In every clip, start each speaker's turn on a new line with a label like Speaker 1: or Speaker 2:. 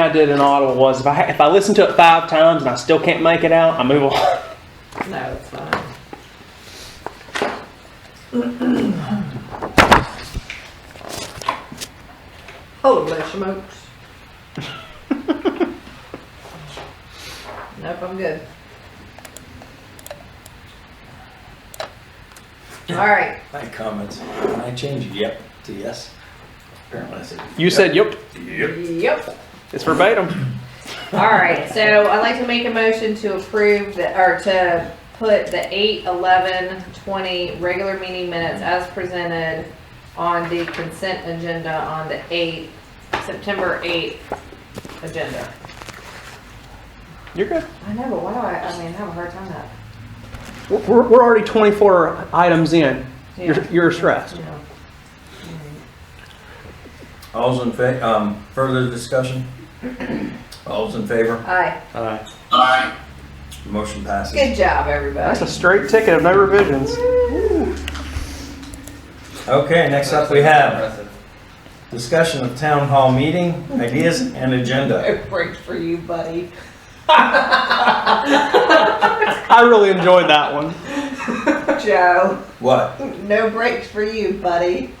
Speaker 1: I did in Ottawa was if I if I listen to it five times and I still can't make it out, I move on.
Speaker 2: No, it's fine. Holy smokes. Nope, I'm good. All right,
Speaker 3: My comments, Can I change yep to yes. Apparently I said.
Speaker 1: You said, "Yep,
Speaker 3: Yep.
Speaker 2: yep.
Speaker 1: it's verbatim."
Speaker 2: All right, so I'd like to make a motion to approve the, or to put the eight, eleven, twenty regular meeting minutes as presented on the consent agenda on the eighth, September eighth agenda.
Speaker 1: You're good.
Speaker 2: I know, but why do I, I mean, I have a hard time that.
Speaker 1: We're, we're, we're already 24 items in. You're, you're stressed.
Speaker 2: Yeah.
Speaker 3: All's in fa, um, further discussion? All's in favor?
Speaker 2: Aye,
Speaker 1: All right.
Speaker 3: Motion passes.
Speaker 2: good job, everybody.
Speaker 1: That's a straight ticket of no revisions.
Speaker 3: Okay, next up we have discussion of town hall meeting, ideas and agenda.
Speaker 2: No break for you, buddy.
Speaker 1: I really enjoyed that one.
Speaker 2: Joe,
Speaker 3: What?
Speaker 2: no breaks for you, buddy.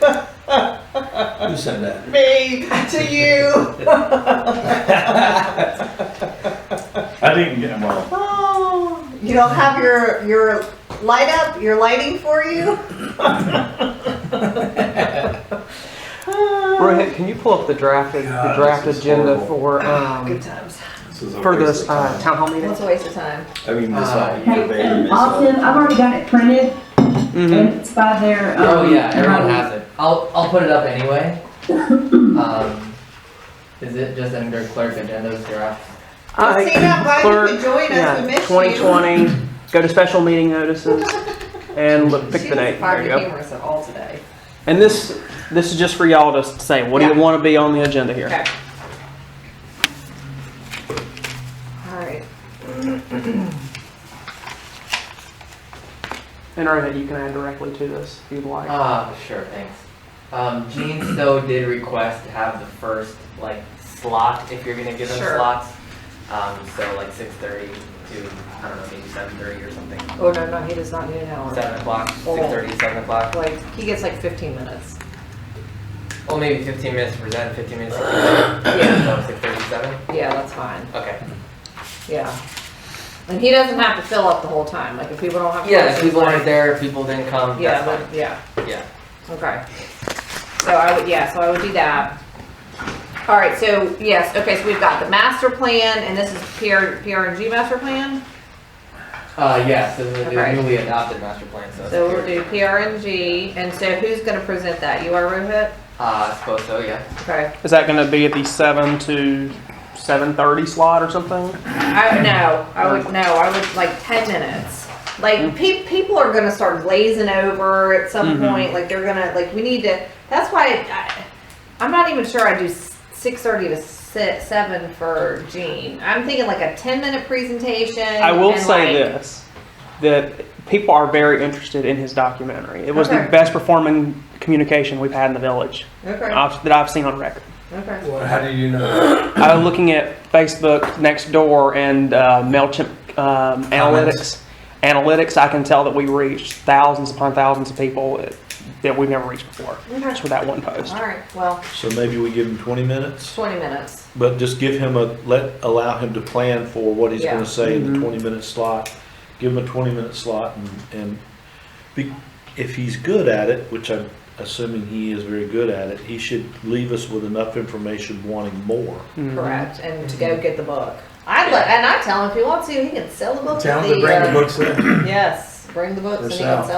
Speaker 3: Who said that?
Speaker 2: Me, to you.
Speaker 3: I didn't get them all.
Speaker 2: Oh, you don't have your your light up, your lighting for you.
Speaker 1: Rohit, can you pull up the drafted the
Speaker 3: God,
Speaker 1: draft
Speaker 3: this is
Speaker 1: agenda
Speaker 3: horrible.
Speaker 1: for
Speaker 2: Good
Speaker 1: um,
Speaker 2: times.
Speaker 3: This is a
Speaker 1: for
Speaker 3: waste
Speaker 1: this
Speaker 3: of
Speaker 1: uh,
Speaker 3: time.
Speaker 1: town hall meeting?
Speaker 2: It's a waste of time.
Speaker 3: I mean, this all, you
Speaker 4: Hey,
Speaker 3: debated
Speaker 4: and
Speaker 3: this
Speaker 4: Austin,
Speaker 3: all.
Speaker 4: I've already got it printed,
Speaker 1: Mm-hmm.
Speaker 4: and it's by their. um,
Speaker 5: Hmm. Oh yeah, everyone
Speaker 4: um,
Speaker 5: has it. I'll I'll put it up anyway. um, is it just under clerk agendas draft?
Speaker 2: Well, see that why you
Speaker 1: clerk,
Speaker 2: could join us. We
Speaker 1: yeah,
Speaker 2: missed
Speaker 1: 2020. Go to special meeting notices and look,
Speaker 2: you.
Speaker 1: pick
Speaker 2: she
Speaker 1: the
Speaker 2: was
Speaker 1: name. There
Speaker 2: Fired
Speaker 1: you go.
Speaker 2: humorous at all today.
Speaker 1: And this, this is just for y'all to say, what do you
Speaker 2: Yeah.
Speaker 1: want to be on the agenda here?
Speaker 2: Okay. All right.
Speaker 1: And Rohit, you can add directly to this if you'd like.
Speaker 5: Ah, sure, thanks. Um, Gene Stowe did request to have the first like slot if you're gonna give them
Speaker 2: Sure.
Speaker 5: slots. Um, so like six thirty to I don't know maybe seven thirty or something.
Speaker 2: Oh no, no, he does not need an hour.
Speaker 5: Seven o'clock, six thirty, seven o'clock.
Speaker 2: Like he gets like 15 minutes.
Speaker 5: Well, maybe fifteen minutes to present, fifteen minutes. to
Speaker 2: Yeah,
Speaker 5: No, six thirty-seven.
Speaker 2: yeah, that's fine.
Speaker 5: Okay.
Speaker 2: Yeah. And he doesn't have to fill up the whole time. Like if people don't have.
Speaker 5: Yeah, if
Speaker 2: questions,
Speaker 5: people
Speaker 2: like-
Speaker 5: aren't there, if people didn't come.
Speaker 2: Yeah,
Speaker 5: that's
Speaker 2: but, yeah.
Speaker 5: fine. yeah.
Speaker 2: Okay. So I would, yeah, so I would do that. All right, so yes, okay, so we've got the master plan and this is PR, PRNG master plan.
Speaker 5: Uh, yes, the, the
Speaker 2: Okay.
Speaker 5: newly adopted master plan, so.
Speaker 2: So
Speaker 5: it's
Speaker 2: we'll do
Speaker 5: here.
Speaker 2: PRNG and so who's gonna present that? You are Rohit?
Speaker 5: Uh, I suppose so, yeah.
Speaker 2: Okay.
Speaker 1: Is that going to be at the seven to seven thirty slot or something?
Speaker 2: I, no, I would, no, I would like ten minutes.
Speaker 1: Mm-hmm.
Speaker 2: Like pe- people are gonna start glazing over at some
Speaker 1: Mhm.
Speaker 2: point, like they're gonna, like we need to, that's why I, I'm not even sure I do six thirty to si seven for Gene. I'm thinking like a ten minute presentation.
Speaker 1: I will
Speaker 2: and,
Speaker 1: say
Speaker 2: like,
Speaker 1: this: that people are very interested in his documentary. It was
Speaker 2: Okay.
Speaker 1: the best performing communication we've had in the village
Speaker 2: Okay,
Speaker 1: I've, that I've seen on record.
Speaker 2: okay.
Speaker 3: How do you know?
Speaker 1: I was looking at Facebook next door and uh, Mailchimp um, analytics.
Speaker 3: Comments.
Speaker 1: Analytics, I can tell that we reached thousands upon thousands of people that, that we've never reached before just with that one post.
Speaker 2: All right, well,
Speaker 6: So maybe we give him twenty minutes,
Speaker 2: twenty minutes.
Speaker 6: but just give him a, let, allow him to plan for what he's
Speaker 2: Yeah.
Speaker 6: gonna say in
Speaker 1: Mhm.
Speaker 6: the twenty minute slot. Give him a twenty minute slot and, and be, if he's good at it, which I'm assuming he is very good at it, he should leave us with enough information wanting more.
Speaker 1: Mhm.
Speaker 2: Correct, and to go get the book. I let, and I tell him if he wants to, he can sell the book.
Speaker 3: Tell
Speaker 2: at
Speaker 3: them to bring the
Speaker 2: uh,
Speaker 3: books in,
Speaker 2: Yes, bring the books and he
Speaker 3: Yourself.
Speaker 2: can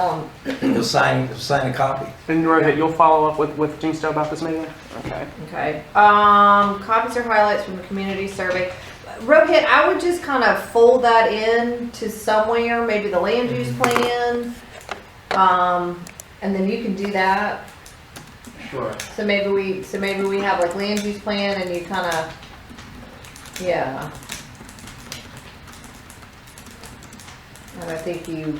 Speaker 2: sell them.
Speaker 3: They'll sign, sign a copy.
Speaker 1: Mm-hmm. And Rohit, you'll follow up with, with Gene Stowe about this meeting? Okay.
Speaker 2: Okay. Um, copies or highlights from the community survey. Rohit, I would just kind of fold that in to somewhere, maybe the land use plan. Um, and then you can do that.
Speaker 5: Sure.
Speaker 2: So maybe we, so maybe we have like land use plan and you kind of, yeah. And I think you,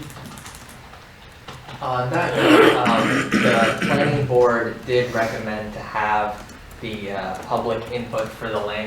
Speaker 5: Uh, On that, note, um, the planning board did recommend to have the, uh, public input for the land